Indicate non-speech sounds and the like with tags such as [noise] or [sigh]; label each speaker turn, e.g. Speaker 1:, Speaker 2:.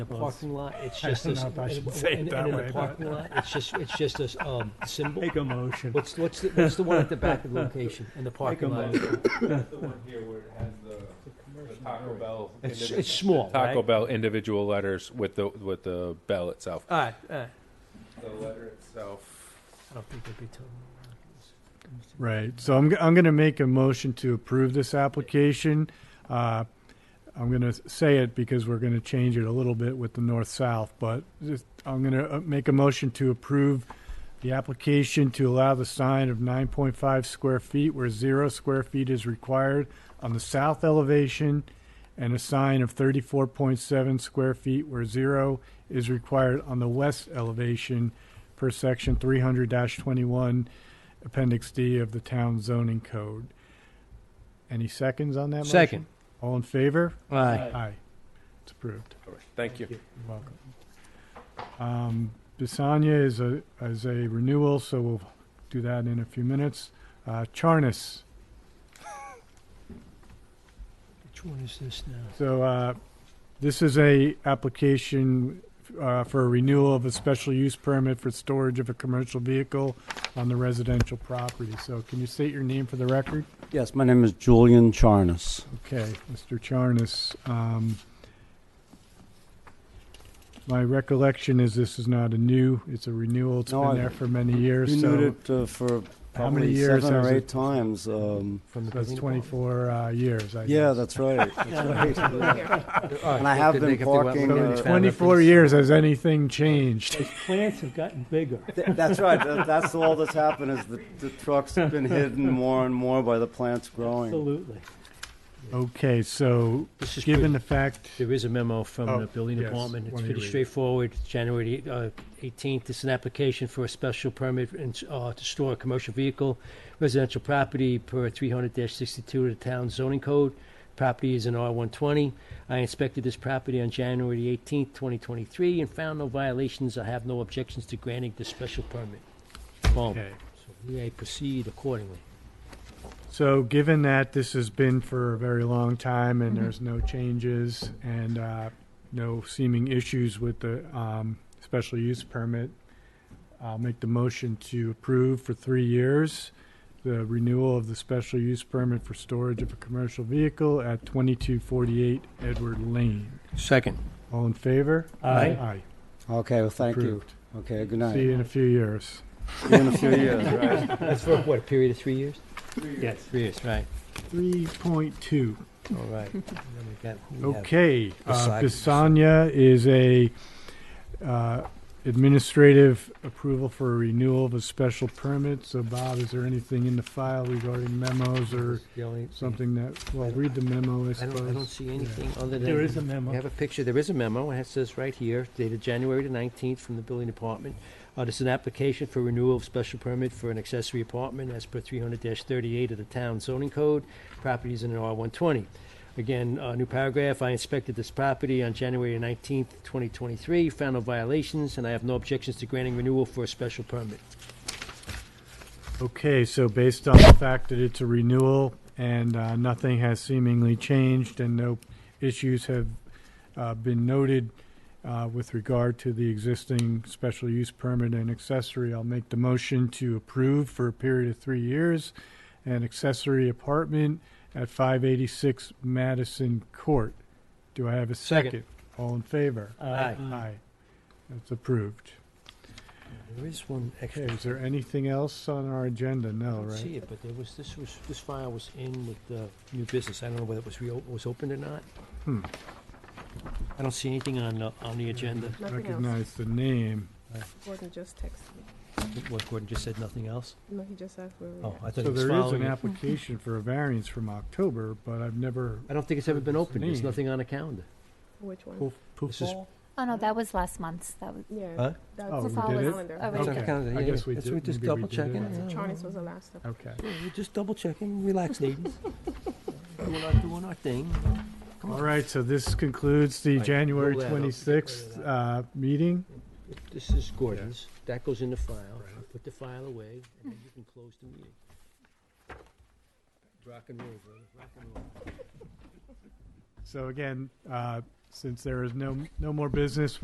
Speaker 1: The parking lot, it's just
Speaker 2: don't
Speaker 1: this.
Speaker 2: know if [laughs] I
Speaker 1: and-
Speaker 2: should say it
Speaker 1: and-
Speaker 2: that
Speaker 1: And in
Speaker 2: way,
Speaker 1: the
Speaker 2: but-
Speaker 1: parking lot, it's just, it's just a s-
Speaker 2: [laughs]
Speaker 1: um, symbol.
Speaker 2: Make a motion.
Speaker 1: What's, what's, the- what's the one at the back
Speaker 2: [laughs]
Speaker 1: of the location, in the parking lot?
Speaker 3: That's the one here where it has the- the Taco Bell.
Speaker 1: It's,
Speaker 3: individ-
Speaker 1: it's small, right?
Speaker 3: Taco Bell individual letters with the, with the bell itself.
Speaker 1: All right, all right.
Speaker 3: The letter itself.
Speaker 1: I don't think they'd be totally.
Speaker 2: Right, so I'm, g- I'm gonna make a motion to approve this application. Uh, I'm gonna say it because we're gonna change it a little bit with the north-south, but just- I'm gonna uh, make a motion to approve the application to allow the sign of nine point five square feet where zero square feet is required on the south elevation and a sign of thirty-four point seven square feet where zero is required on the west elevation per section three hundred twenty-one Appendix D of the town zoning code. Any seconds on that motion?
Speaker 1: Second.
Speaker 2: All in favor?
Speaker 1: All right.
Speaker 2: Aye. It's approved.
Speaker 3: All right, Thank you.
Speaker 2: You're welcome. Um, Bisanya is a, is a renewal, so we'll do that in a few minutes. Uh, Charnis,
Speaker 1: Which one is this now?
Speaker 2: so, uh, this is a application, uh, for a renewal of a special use permit for storage of a commercial vehicle on the residential property. So can you state your name for the record?
Speaker 4: Yes, my name is Julian Charnas.
Speaker 2: Okay, Mr. Charnas, um, my recollection is this is not a new, it's a renewal. It's
Speaker 4: No,
Speaker 2: been
Speaker 4: I-
Speaker 2: there for many years,
Speaker 4: Renewed
Speaker 2: so
Speaker 4: it uh, for
Speaker 2: How many
Speaker 4: probably
Speaker 2: years
Speaker 4: seven or
Speaker 2: has
Speaker 4: eight
Speaker 2: it-
Speaker 4: times. Um,
Speaker 1: From the
Speaker 2: that's
Speaker 1: beginning?
Speaker 2: twenty-four, uh, years, I
Speaker 4: yeah,
Speaker 2: guess.
Speaker 4: that's [laughs] right. That's right.
Speaker 1: All
Speaker 4: And I
Speaker 1: right.
Speaker 4: have
Speaker 1: They
Speaker 4: been
Speaker 1: could- they could-
Speaker 4: parking,
Speaker 1: they could-
Speaker 4: uh,
Speaker 2: So Twenty-four years, has anything changed?
Speaker 1: Those plants have gotten bigger.
Speaker 4: Th- that's right. That, that's all that's happened is the, the trucks have been hidden more and more by the plants growing.
Speaker 1: Absolutely.
Speaker 2: Okay, so,
Speaker 1: This is
Speaker 2: given
Speaker 1: good.
Speaker 2: the fact,
Speaker 1: There is a memo from
Speaker 2: Oh,
Speaker 1: the building
Speaker 2: yes.
Speaker 1: department. It's
Speaker 2: Why don't you
Speaker 1: pretty
Speaker 2: read it?
Speaker 1: straightforward. It's January uh, 18th. It's an application for a special permit and, uh, to store a commercial vehicle, residential property per 300-62 of the town zoning code. Property is in R120. I inspected this property on January 18th, 2023, and found no violations. I have no objections to granting the special permit. Boom.
Speaker 2: okay.
Speaker 1: So we may proceed accordingly.
Speaker 2: So, given that this has been for a very long time and there's no changes and uh, no seeming issues with the um, special use permit, I'll make the motion to approve for three years the renewal of the special use permit for storage of a commercial vehicle at 2248 Edward Lane.
Speaker 1: Second.
Speaker 2: All in favor?
Speaker 1: Aye.
Speaker 2: Aye.
Speaker 4: Okay, well, thank you.
Speaker 2: Approved.
Speaker 4: Okay, good
Speaker 2: See you
Speaker 4: night.
Speaker 2: in a few years.
Speaker 4: See you in a few years, right?
Speaker 1: That's for what, a period of three years? Yes. Three years, right.
Speaker 2: 3.2.
Speaker 1: All right. [laughs] And then we got- who we have?
Speaker 2: Okay, uh,
Speaker 1: Besides-
Speaker 2: Bisanya is a uh, administrative approval for a renewal of a special permit. So Bob, is there anything in the file regarding memos or
Speaker 1: The only-
Speaker 2: something that, well, read the memo, I
Speaker 1: I don't, I don't
Speaker 2: suppose.
Speaker 1: see anything other than.
Speaker 5: There is a
Speaker 1: We
Speaker 5: memo.
Speaker 1: have a picture, there is a memo, and it says right here, dated January the nineteenth from the building department. Uh, this is an application for renewal of special permit for an accessory apartment as per three hundred thirty-eight of the town zoning code. Properties in an R one twenty. Again, uh, new paragraph, I inspected this property on January nineteenth, twenty twenty-three, found no violations, and I have no objections to granting renewal for a special permit.
Speaker 2: Okay, so based on the fact that it's a renewal and uh, nothing has seemingly changed and no issues have uh, been noted uh, with regard to the existing special use permit and accessory, I'll make the motion to approve for a period of three years an accessory apartment at 586 Madison Court. Do I have a
Speaker 1: Second. Mm.
Speaker 2: second? All in favor?
Speaker 1: Aye.
Speaker 2: Aye. That's approved.
Speaker 1: There is one extra.
Speaker 2: Okay, is there anything else on our agenda?
Speaker 1: I
Speaker 2: No,
Speaker 1: don't see
Speaker 2: right?
Speaker 1: it, but there was, this was, this file was in with the new business. I don't know whether it was reopened, was opened or not.
Speaker 2: Hmm.
Speaker 1: I don't see anything on, the- on the agenda.
Speaker 6: Nothing else.
Speaker 2: recognize the name.
Speaker 6: Gordon just texted me.
Speaker 1: What, Gordon just said, nothing else?
Speaker 6: No, he just asked where we
Speaker 1: Oh,
Speaker 6: were.
Speaker 1: I thought
Speaker 2: So
Speaker 1: he was
Speaker 2: there is an
Speaker 1: [laughs] following. it.
Speaker 2: application for a variance from October, but I've never,
Speaker 1: I don't think it's ever been opened. There's
Speaker 2: Name.
Speaker 1: nothing on the calendar.
Speaker 6: Which one?
Speaker 1: Poof, poof.
Speaker 2: This is-
Speaker 7: Oh, no, that was last month's. That was,
Speaker 6: Yeah.
Speaker 1: Huh?
Speaker 6: That's
Speaker 2: Oh,
Speaker 6: the
Speaker 2: we
Speaker 6: follow
Speaker 2: did it?
Speaker 6: calendar.
Speaker 7: Oh, we
Speaker 2: Okay. I guess we did-
Speaker 1: We're just
Speaker 2: maybe we
Speaker 1: double
Speaker 2: did it.
Speaker 1: checking.
Speaker 2: That's
Speaker 1: Yeah,
Speaker 6: Charles was the last up.
Speaker 2: okay.
Speaker 1: yeah, We're just double checking. Relax, ladies. [laughs] Doing our, doing our thing. Come on.
Speaker 2: All right, so this concludes the
Speaker 1: Right,
Speaker 2: January
Speaker 1: roll that up.
Speaker 2: 26th uh, meeting.
Speaker 1: This is Gordon's. That goes in the file. You Put the file away, and then you can close the meeting. Rock and roll, brother, rock and roll.
Speaker 2: So again, uh, since there is no, no more business,